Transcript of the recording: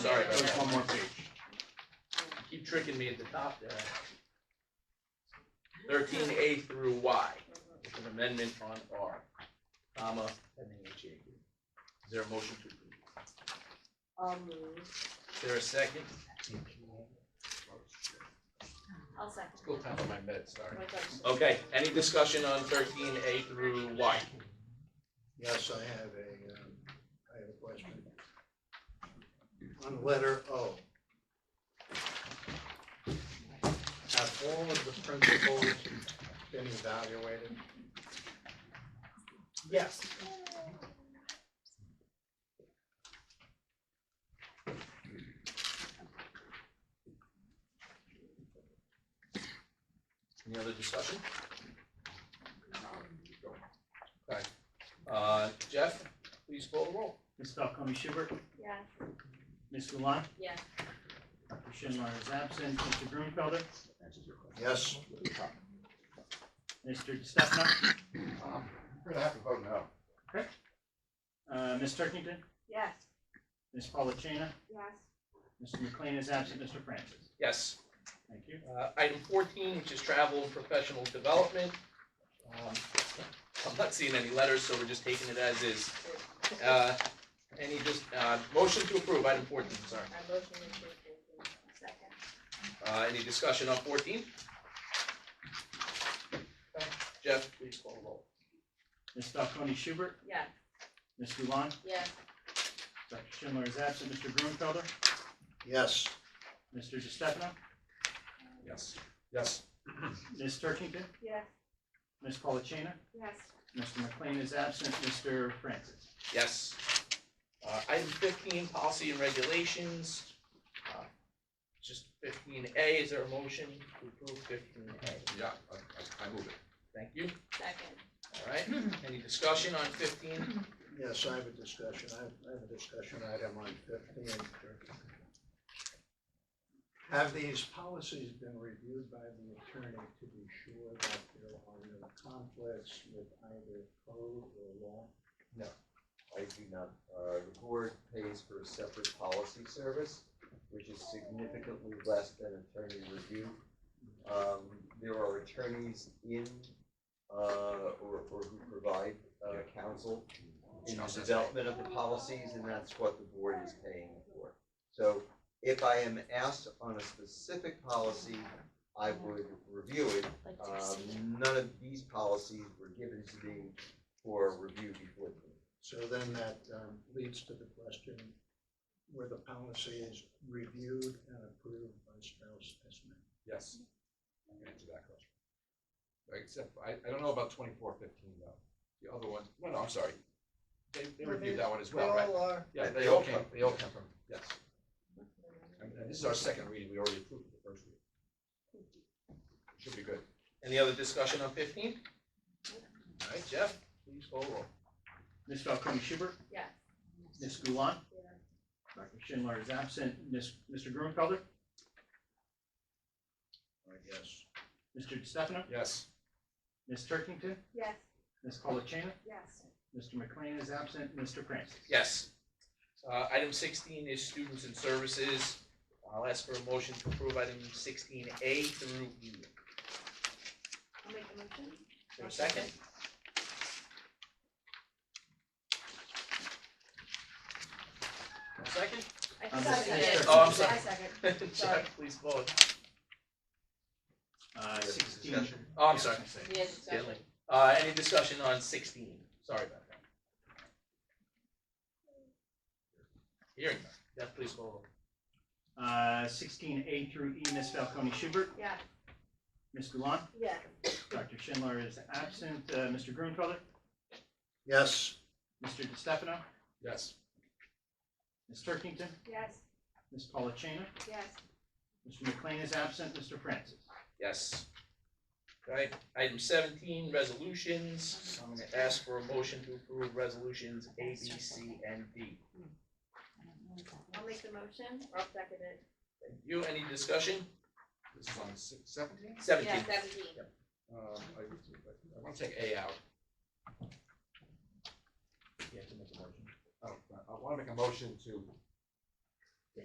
There's one more page. Keep tricking me at the top there. Thirteen A through Y, with an amendment on R, comma, pending HAB. Is there a motion to approve? I'll move. Is there a second? I'll second. School time on my meds, sorry. My question. Okay, any discussion on thirteen A through Y? Yes, I have a, um, I have a question. On letter O. Have all of the principals been evaluated? Yes. Any other discussion? Okay, uh, Jeff, please call the roll. Ms. Falcone Schubert, Yeah. Ms. Gulon, Yeah. Dr. Schindler is absent, Mr. Grunfelder, Yes. Mr. Di Stefano, Um, We're gonna have to vote no. uh, Ms. Turkington, Yes. Ms. Polachina, Yes. Mr. McLean is absent, Mr. Francis. Yes. Thank you. Uh, Item 14, which is travel and professional development. Um, I'm not seeing any letters, so we're just taking it as is. Uh, Any just, uh, motion to approve, item 14, sorry. I motion to approve. Second. Uh, Any discussion on 14? Okay, Jeff, please call the roll. Ms. Falcone Schubert, Yeah. Ms. Gulon, Yes. Dr. Schindler is absent, Mr. Grunfelder, Yes. Mr. Di Stefano, Yes. Yes. Ms. Turkington, Yes. Ms. Polachina, Yes. Mr. McLean is absent, Mr. Francis. Yes. Uh, Item 15, policy and regulations. Uh, Just 15A, is there a motion to approve 15A? Yeah, I, I- I move it. Thank you. Second. All right, any discussion on 15? Yes, I have a discussion, I have- I have a discussion item on fifteen. Have these policies been reviewed by the attorney to be sure that there are no conflicts with either code or law? I do not, uh, the board pays for a separate policy service, which is significantly less than attorney review. Um, there are attorneys in, uh, or, or who provide, uh, counsel in the development of the policies, and that's what the board is paying for. So if I am asked on a specific policy, I would review it. Uh, Um, none of these policies were given to me for review before the board. So then that um, leads to the question, were the policies reviewed and approved by Strauss Esman? Yes. I can answer that question. Except, I, I don't know about twenty-four fifteen though. The other one, no, no, I'm sorry. They, they reviewed that one as well, right? Yeah, they all came, they all came from, yes. And and this is our second reading. We already approved the first reading. Should be good. Any other discussion on fifteen? All right, Jeff, please call roll. Ms. Falcone Schubert, Yes. Ms. Gulon, Yeah. Dr. Schindler is absent, Ms. Mr. Grunfelder, I guess. Mr. Di Stefano, Yes. Ms. Turkington, Yes. Ms. Polachina, Yes. Mr. McLean is absent, Mr. Francis. Yes. Uh, item sixteen is students and services. I'll ask for a motion to approve item sixteen A through E. Is I'll make a motion. there a second? A Second? I I'm just- second. Oh, I'm sorry. I second. Sorry. Jeff, please vote. Uh, sixteen. Discussion. Oh, I'm sorry. Yeah, discussion. Stanley. Uh, any discussion on sixteen? Sorry about that. Hearing none. Jeff, please call roll. Uh, sixteen A through E, Ms. Falcone Schubert, Yeah. Ms. Gulon, Yeah. Dr. Schindler is absent, uh, Mr. Grunfelder, Yes, Mr. Di Stefano, Yes. Ms. Turkington, Yes. Ms. Polachina, Yes. Mr. McLean is absent, Mr. Francis. Yes. Okay, item seventeen, resolutions. I'm gonna ask for a motion to approve resolutions A, B, C, and D. I'll make the motion. I'll second it. Thank You, any discussion? This is on six, seventeen? Seventeen. Yeah, seventeen. Um, I, I wanna take A out. You have to make a motion. Oh, I wanna make a motion to